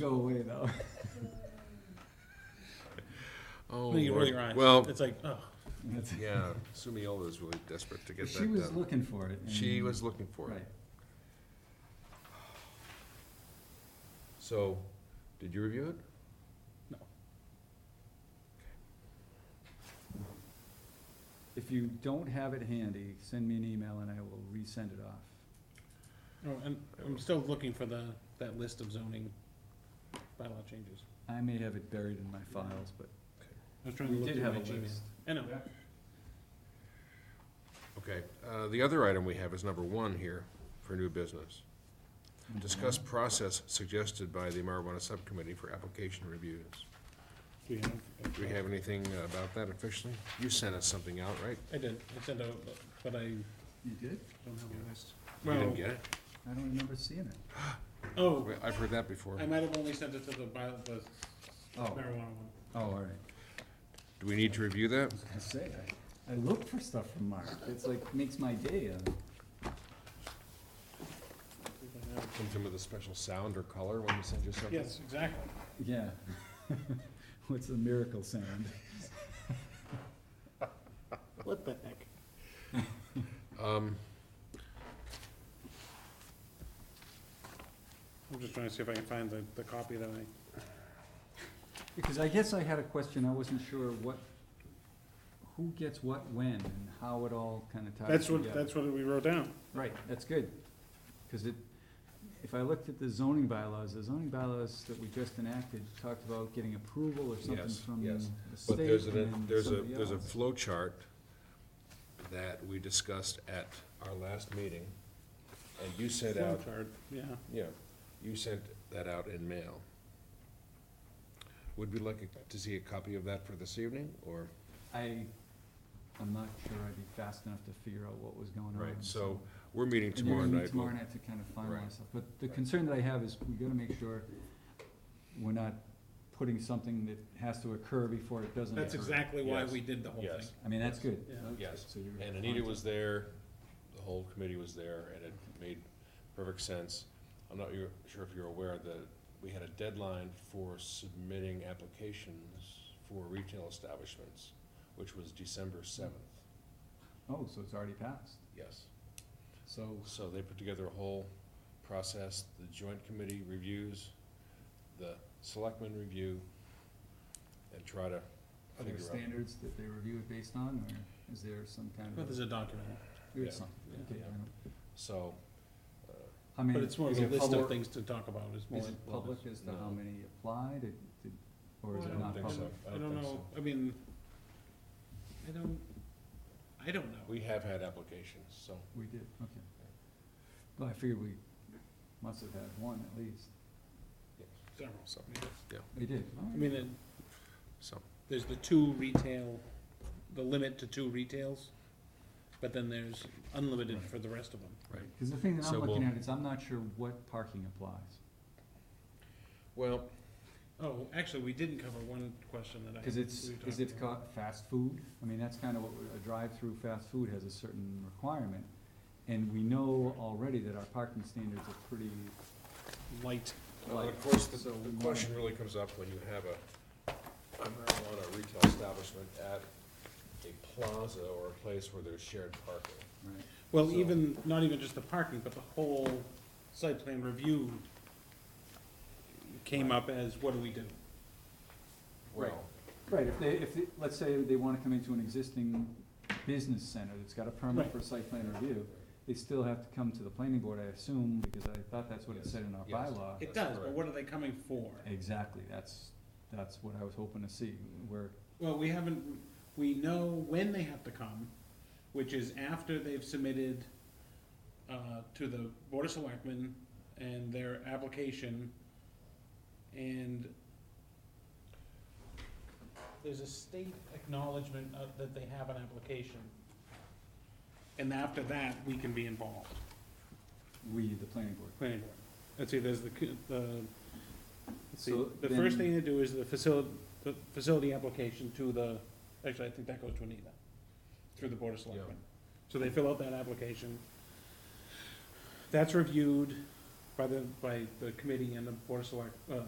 go away though. Oh, Make it Lord. really rhyme. Well, It's like, oh, That's- yeah, Sumiola is really desperate to get She that was done. looking for it. and- She was looking for it. Right. So, did you review it? no. If you don't have it handy, send me an email and I will resend it off. No, I'm, Oh, I'm still looking for the, that list of zoning bylaw changes. I may have it buried in my files, but I was trying to we look did through have my a Gmail. list. I know, Okay, uh, the other item we have is number one here for new business. Discuss process suggested by the marijuana subcommittee for application reviews. do you have? Do we have anything about that officially? You sent us something out, right? I did, I sent out, but- but I You did? don't have a list. You didn't Well, get it? I don't remember seeing it. oh, Well, I've heard that before. I might have only sent it to the bio, the Oh, marijuana one. oh, all right. Do we need to review that? I say, I, I look for stuff from Mark. It's like, makes my day. uh, Something with a special sound or color when we send you something? Yes, exactly. Yeah. What's the miracle sound? What the heck? Um, I'm just trying to see if I can find the, the copy that I, Because I guess I had a question, I wasn't sure what, who gets what when and how it all kind of ties that's together. what, that's what we wrote down. Right, that's good, because it, if I looked at the zoning bylaws, the zoning bylaws that we just enacted talked about getting approval or something Yes, from the yes. state But there's and a, then there's a, somebody there's a else. flow chart that we discussed at our last meeting, and you sent Flow out, chart, Yeah, yeah, you sent that out in mail. Would we like to see a copy of that for this evening, or? I, I'm not sure I'd be fast enough to figure out what was going on. Right, so, we're meeting And you're tomorrow gonna meet night. Tomorrow We'll- night to kind of Right. finalize stuff, but the Right. concern that I have is we gotta make sure we're not putting something that has to occur before it doesn't occur. that's exactly why Yes, we did the whole thing. yes. I mean, that's good. Yeah. Okay, Yes. so you're And Anita on was there, the whole committee was there, and it made perfect sense. I'm not you're- sure if you're aware that we had a deadline for submitting applications for retail establishments, which was December seventh, to- Oh, so it's already passed, yes. so, So they put together a whole process, the joint committee reviews, the selectmen review, and try to are there figure out. standards that they review it based on, or is there some kind But of? there's a document, There yeah, is something, yeah, okay, yeah. I don't- So, uh, I mean, but it's more of is a it list of public- things to talk about, it's more. Is it public as to how No. many applied, it, did, or Well, is I it don't not think so. public? I I don't don't think know, I mean, I don't, I don't know. we have had applications, so. We did, okay. Well, I figured we must have had one at least, Several. So- we did, Oh, all I right. mean, it- So, there's the two retail, the limit to two retails, but then there's unlimited for the rest of them. right. Cause the thing that So I'm looking we'll- at is I'm not sure what parking applies, Well, Oh, actually, we didn't cover one question that I. cause it's, we talked is it about. caught fast food? I mean, that's kinda what, we- a drive-through fast food has a certain requirement, and we know already that our parking standards are pretty Light, well, light. of course, the, So we Uh, the wanna- question really comes up when you have a a marijuana retail establishment at a plaza or a place where there's shared parking. Right, well, So- even, not even just the parking, but the whole site plan review came up as, what do we do? Well, Right. if they, if, they- let's say they wanna come into an existing business center that's got a permit Right. for site plan review, they still have to come to the planning board, I assume, because I thought that's what it Yes, said in our yes. bylaw. It That's does, but correct. what are they coming for? Exactly, that's, that's what I was hoping to see, where, Well, we haven't, we know when they have to come, which is after they've submitted, uh, to the Board of Selectmen and their application, and there's a state acknowledgement of, that they have an application. And after that, we can be involved, we, the planning board. planning board. Let's see, there's the, c- the, let's see, So the first then- thing to do is the facility, the facility application to the, actually, I think that goes to Anita, through the Board of Selectmen. So they fill out that application. That's reviewed by the, by the committee and the Board of Select, uh,